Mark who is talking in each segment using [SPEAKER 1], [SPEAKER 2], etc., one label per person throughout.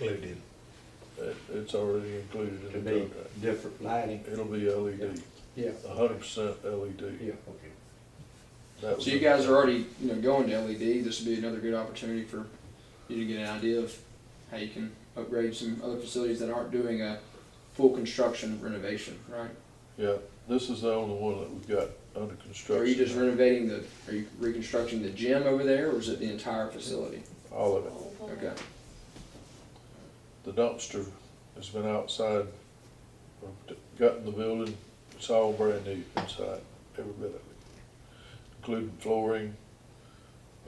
[SPEAKER 1] included.
[SPEAKER 2] It, it's already included
[SPEAKER 3] to
[SPEAKER 2] in the
[SPEAKER 3] be
[SPEAKER 2] contract.
[SPEAKER 3] different lighting.
[SPEAKER 2] It'll be LED,
[SPEAKER 3] Yeah,
[SPEAKER 2] a hundred percent LED.
[SPEAKER 3] yeah.
[SPEAKER 1] Okay.
[SPEAKER 2] That was
[SPEAKER 4] So you
[SPEAKER 2] a-
[SPEAKER 4] guys are already, you know, going to LED. This would be another good opportunity for you to get an idea of how you can upgrade some other facilities that aren't doing a full construction renovation, right?
[SPEAKER 2] Yeah, this is the only one that we've got under construction.
[SPEAKER 4] Are you just renovating the, are you reconstructing the gym over there, or is it the entire facility?
[SPEAKER 2] All of it.
[SPEAKER 4] Okay,
[SPEAKER 2] The dumpster has been outside, we've got in the building, it's all brand new inside, every bit of it. Including flooring,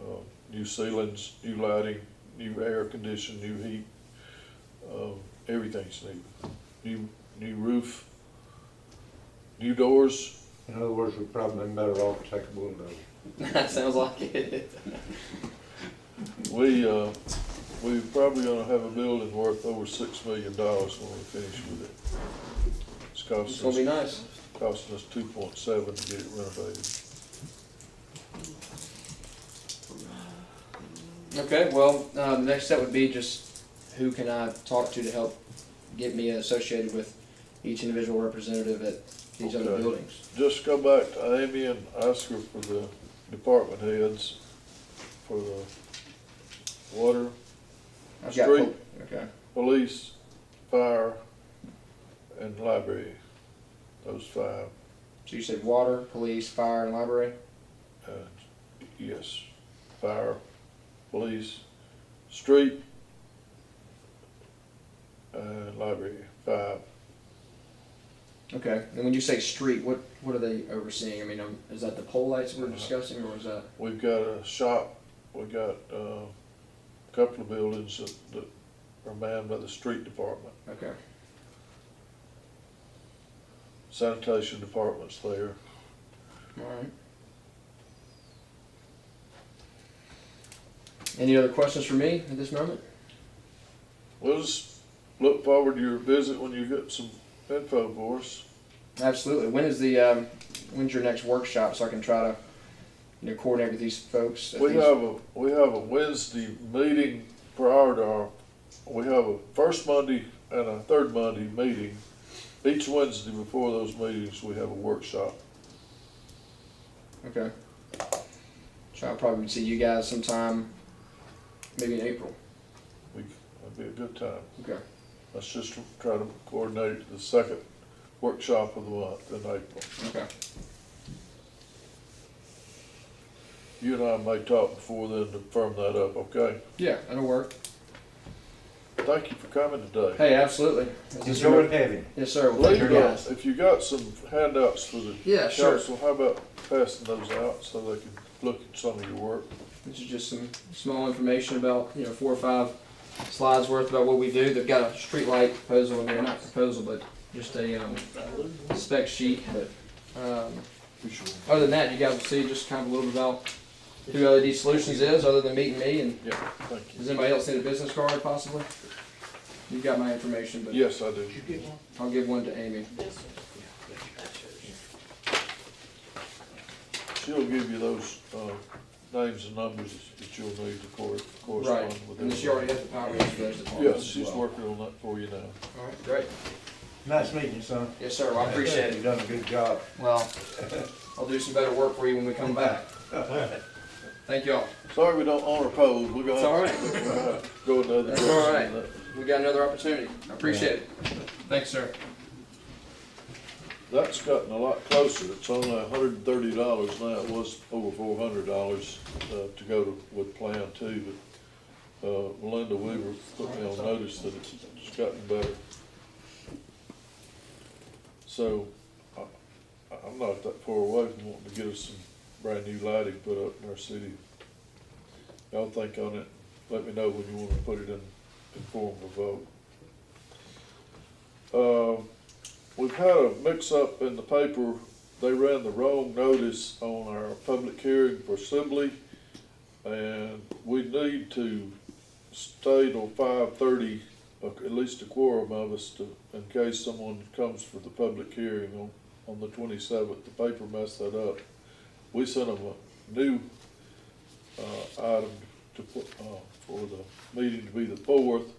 [SPEAKER 2] uh, new ceilings, new lighting, new air conditioning, new heat. Um, everything's new, new, new roof, new doors,
[SPEAKER 3] In other words, we've probably been better off to take a bulldozer.
[SPEAKER 4] that sounds like it.
[SPEAKER 2] We, uh, we probably gonna have a building worth over six million dollars when we finish with it. It's
[SPEAKER 4] It's
[SPEAKER 2] costing
[SPEAKER 4] gonna be
[SPEAKER 2] us,
[SPEAKER 4] nice.
[SPEAKER 2] costing us two point seven to get it renovated.
[SPEAKER 4] Okay, well, uh, the next step would be just who can I talk to to help get me associated with each individual representative at these other
[SPEAKER 2] Okay.
[SPEAKER 4] buildings?
[SPEAKER 2] Just go back to Amy and Oscar for the department heads, for the water,
[SPEAKER 4] I've got
[SPEAKER 2] Street.
[SPEAKER 4] po- Okay.
[SPEAKER 2] police, fire, and library. Those five,
[SPEAKER 4] So you said water, police, fire, and library?
[SPEAKER 2] uh, yes, fire, police, street, uh, library, five.
[SPEAKER 4] Okay, and when you say street, what, what are they overseeing? I mean, um, is that the pole lights we're
[SPEAKER 2] Uh-huh.
[SPEAKER 4] discussing, or is that?
[SPEAKER 2] We've got a shop, we got, uh, a couple of buildings that, that are manned by the street department.
[SPEAKER 4] Okay,
[SPEAKER 2] Sanitation department's there.
[SPEAKER 4] alright. Any other questions for me at this moment?
[SPEAKER 2] We'll just look forward to your visit when you get some info for us.
[SPEAKER 4] Absolutely. When is the, um, when's your next workshop, so I can try to, you know, coordinate with these folks? at
[SPEAKER 2] We
[SPEAKER 4] these-
[SPEAKER 2] have a, we have a Wednesday meeting prior to our, we have a first Monday and a third Monday meeting. Each Wednesday before those meetings, we have a workshop.
[SPEAKER 4] Okay. So I'll probably see you guys sometime, maybe in April.
[SPEAKER 2] We, that'd be a good time.
[SPEAKER 4] Okay.
[SPEAKER 2] Let's just try to coordinate the second workshop of the month in April.
[SPEAKER 4] Okay.
[SPEAKER 2] You and I may talk before then to firm that up, okay?
[SPEAKER 4] Yeah, that'll work.
[SPEAKER 2] Thank you for coming today.
[SPEAKER 4] Hey, absolutely. Yes, sir.
[SPEAKER 3] Enjoyed having it.
[SPEAKER 4] Yes, sir. Well, thank you
[SPEAKER 2] Later,
[SPEAKER 4] guys.
[SPEAKER 2] if you got some handouts for the
[SPEAKER 4] Yeah, sure.
[SPEAKER 2] council, how about passing those out so they can look at some of your work?
[SPEAKER 4] This is just some small information about, you know, four or five slides worth about what we do. They've got a streetlight proposal in there, not proposal, but just a, um, spec sheet, but, um, other than that, you guys will see just kind of a little bit about who LED Solutions is, other than meeting me, and
[SPEAKER 2] Yeah, thank you.
[SPEAKER 4] does anybody else need a business card possibly? You've got my information, but
[SPEAKER 2] Yes, I do.
[SPEAKER 1] You get one?
[SPEAKER 4] I'll give one to Amy.
[SPEAKER 1] Yeah, that's yours.
[SPEAKER 2] She'll give you those, uh, names and numbers that you'll need to cor- correspond
[SPEAKER 4] Right,
[SPEAKER 2] with.
[SPEAKER 4] and she already has the power range for those
[SPEAKER 2] Yes,
[SPEAKER 4] departments as
[SPEAKER 2] she's
[SPEAKER 4] well.
[SPEAKER 2] working on that for you now.
[SPEAKER 4] All right, great.
[SPEAKER 3] Nice meeting you, son.
[SPEAKER 4] Yes, sir, well, I appreciate it.
[SPEAKER 3] You've done a good job.
[SPEAKER 4] Well, I'll do some better work for you when we come back. Thank y'all.
[SPEAKER 2] Sorry we don't honor pose, we're
[SPEAKER 4] It's
[SPEAKER 2] gonna have
[SPEAKER 4] all right.
[SPEAKER 2] to- we're gonna have to go another
[SPEAKER 4] That's
[SPEAKER 2] direction.
[SPEAKER 4] all
[SPEAKER 2] on
[SPEAKER 4] right.
[SPEAKER 2] that.
[SPEAKER 4] We got another opportunity. I appreciate it. Thanks, sir.
[SPEAKER 2] That's gotten a lot closer, it's only hundred and thirty dollars now, it was over four hundred dollars, uh, to go to, with Plan Two, but, uh, Melinda Weaver put me on notice that it's gotten better. So, I, I'm not that far away from wanting to get us some brand-new lighting put up in our city. Y'all think on it, let me know when you wanna put it in, in form of a vote. Um, We've had a mix-up in the paper. They ran the wrong notice on our public hearing for Sibley. And we need to stay till five thirty, uh, at least a quorum of us to, in case someone comes for the public hearing on, on the twenty-seventh. The paper messed that up. We sent them a new, uh, item to put, uh, for the meeting to be the fourth.